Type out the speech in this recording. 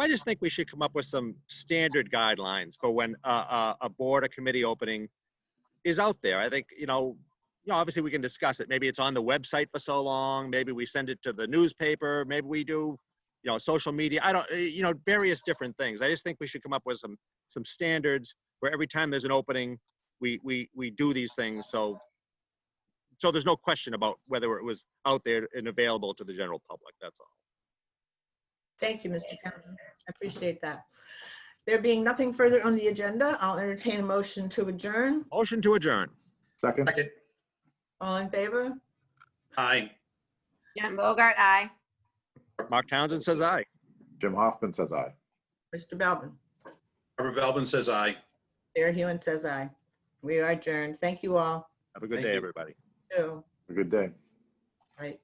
I just think we should come up with some standard guidelines for when a, a, a board or committee opening is out there. I think, you know, you know, obviously we can discuss it. Maybe it's on the website for so long. Maybe we send it to the newspaper. Maybe we do, you know, social media. I don't, eh, you know, various different things. I just think we should come up with some, some standards where every time there's an opening, we, we, we do these things. So, so there's no question about whether it was out there and available to the general public. That's all. Thank you, Mr. Townsend. I appreciate that. There being nothing further on the agenda, I'll entertain a motion to adjourn. Motion to adjourn. Second, Second, All in favor? aye. Jen Bogart, aye. Mark Townsend says aye. Jim Hoffman says aye. Mr. Belvin? Robert Belvin says aye. Sarah Hewen says aye. We are adjourned. Thank you all. Have a good Thank day, you. everybody. Too. Have a good day. Right.